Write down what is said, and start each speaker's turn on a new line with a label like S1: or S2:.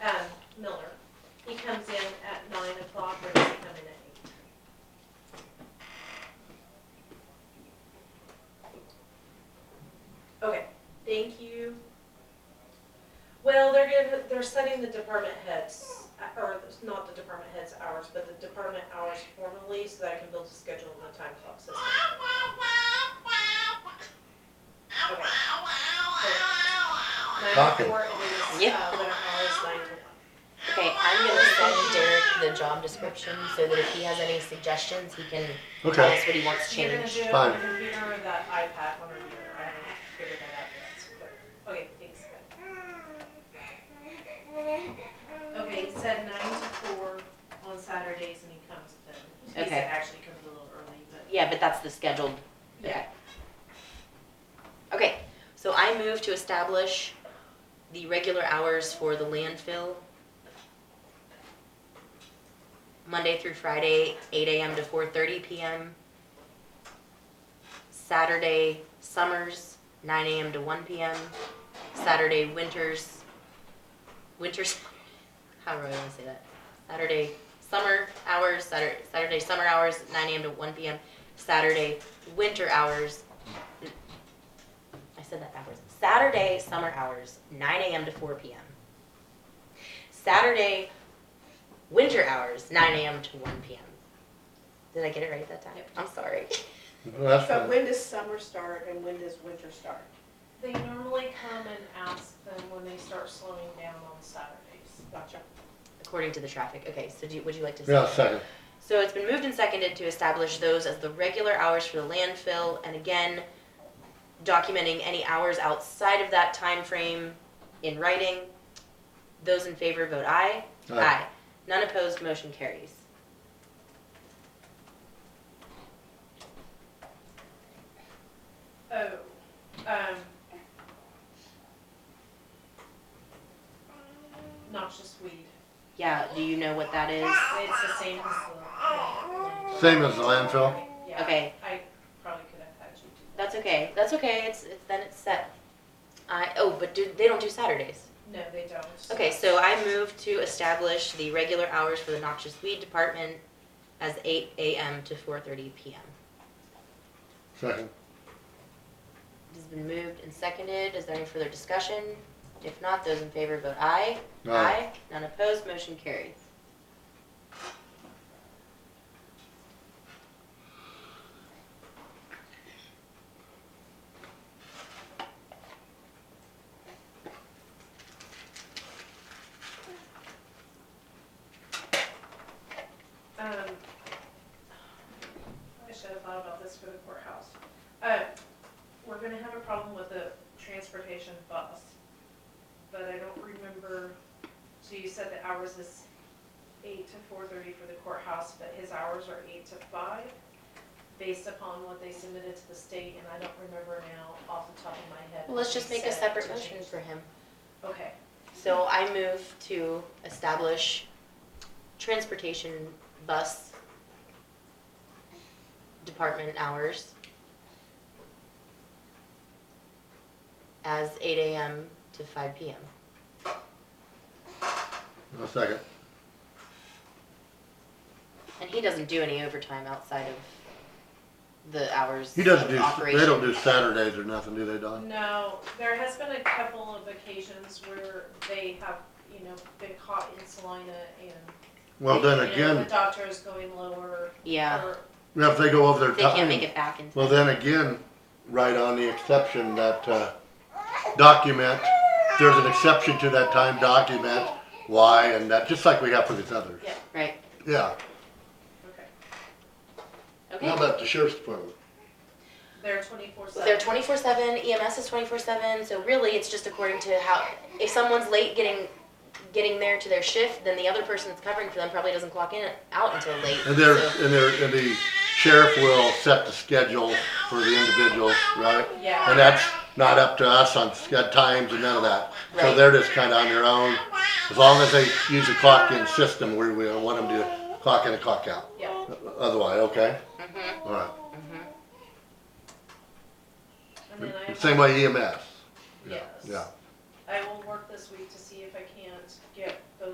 S1: Um, the department heads, uh, or not the department heads hours, but the department hours formally so that I can build a schedule in the time clock system. Okay. Nine to
S2: Copy.
S1: four, and then,
S3: Yeah.
S1: uh, winter hours, nine to one.
S3: Okay, I'm gonna send Derek the job description so that if he has any suggestions, he can tell
S2: Okay,
S3: us what he wants
S1: You're gonna
S3: changed.
S1: do it on
S2: Fine.
S1: the computer or that iPad on the computer, I haven't figured that out yet, so, but, okay, thanks, good. Okay, he said nine to four on Saturdays and he comes then, he
S3: Okay.
S1: said actually comes a little early, but,
S3: Yeah, but that's the scheduled.
S1: yeah.
S3: Okay, so I move to establish the regular hours for the landfill. Monday through Friday, eight AM to four thirty PM. Saturday, summers, nine AM to one PM. Saturday, winters, winters, how do I wanna say that? Saturday, summer hours, Saturday, Saturday, summer hours, nine AM to one PM. Saturday, winter hours. I said that backwards. Saturday, summer hours, nine AM to four PM. Saturday, winter hours, nine AM to one PM. Did I get it right that time?
S1: Yep.
S3: I'm sorry.
S2: Well, that's
S4: But
S2: fine.
S4: when does summer start and when does winter start?
S1: They normally come and ask them when they start slowing down on Saturdays.
S4: Gotcha.
S3: According to the traffic. Okay, so do, you- would you like to?
S2: Yeah, second.
S3: So it's been moved and seconded to establish those as the regular hours for the landfill, and again, documenting any hours outside of that time frame in writing. Those in favor vote aye.
S2: Aye.
S3: None opposed, motion carries.
S1: Oh, um. Noxious weed,
S3: Yeah, do you know what that is?
S1: it's the same as the.
S2: Same as the landfill?
S1: Yeah.
S3: Okay.
S1: I probably could have had you do that.
S3: That's okay, that's okay, it's, it's, then it's set. I, oh, but do, they don't do Saturdays.
S1: No, they don't.
S3: Okay, so I move to establish the regular hours for the noxious weed department as eight AM to four thirty PM.
S2: Second.
S3: It has been moved and seconded. Is there any further discussion? If not, those in favor vote aye.
S2: Aye.
S3: None opposed, motion carries.
S1: Um, I should have thought about this for the courthouse. Uh, we're gonna have a problem with the transportation bus, but I don't remember, so you said the hours is eight to four thirty for the courthouse, but his hours are eight to five, based upon what they submitted to the state, and I don't remember now off the top of my head.
S3: Well, let's
S1: what
S3: just
S1: they
S3: make a
S1: said
S3: separate
S1: to
S3: motion
S1: change.
S3: for him.
S1: Okay,
S3: So I move to establish transportation bus department hours as eight AM to five PM.
S2: No, second.
S3: And he doesn't do any overtime outside of the hours
S2: He doesn't
S3: of
S2: do,
S3: operation.
S2: they don't do Saturdays or nothing, do they, Don?
S1: No, there has been a couple of occasions where they have, you know, been caught in Salina and.
S2: Well, then
S1: you know,
S2: again,
S1: The doctor is going lower.
S3: Yeah.
S1: or-
S2: if they go over their
S3: They can't make
S2: time,
S3: it back in.
S2: well, then again, right on the exception that, uh, document, there's an exception to that time document, why, and that, just like we have for these others.
S1: Yeah.
S3: Right,
S2: Yeah.
S1: Okay.
S3: okay.
S2: How about the sheriff's department?
S1: They're twenty-four seven.
S3: They're twenty-four seven, EMS is twenty-four seven, so really, it's just according to how, if someone's late getting, getting there to their shift, then the other person that's covering for them probably doesn't clock in, out until late.
S2: And there,
S3: so-
S2: and there, and the sheriff will set the schedule for the individuals, right? And
S1: Yeah,
S2: that's not up to us on sched times and none of that. So
S3: Right.
S2: they're just kinda on their own. As long as they use the clock in system, we, we want them to clock in and clock out.
S1: yeah,
S2: Otherwise, okay?
S3: Mhm,
S2: Alright.
S3: mhm.
S1: and then I.
S2: Same way E EMS.
S1: Yes.
S2: yeah.
S1: I will work this week to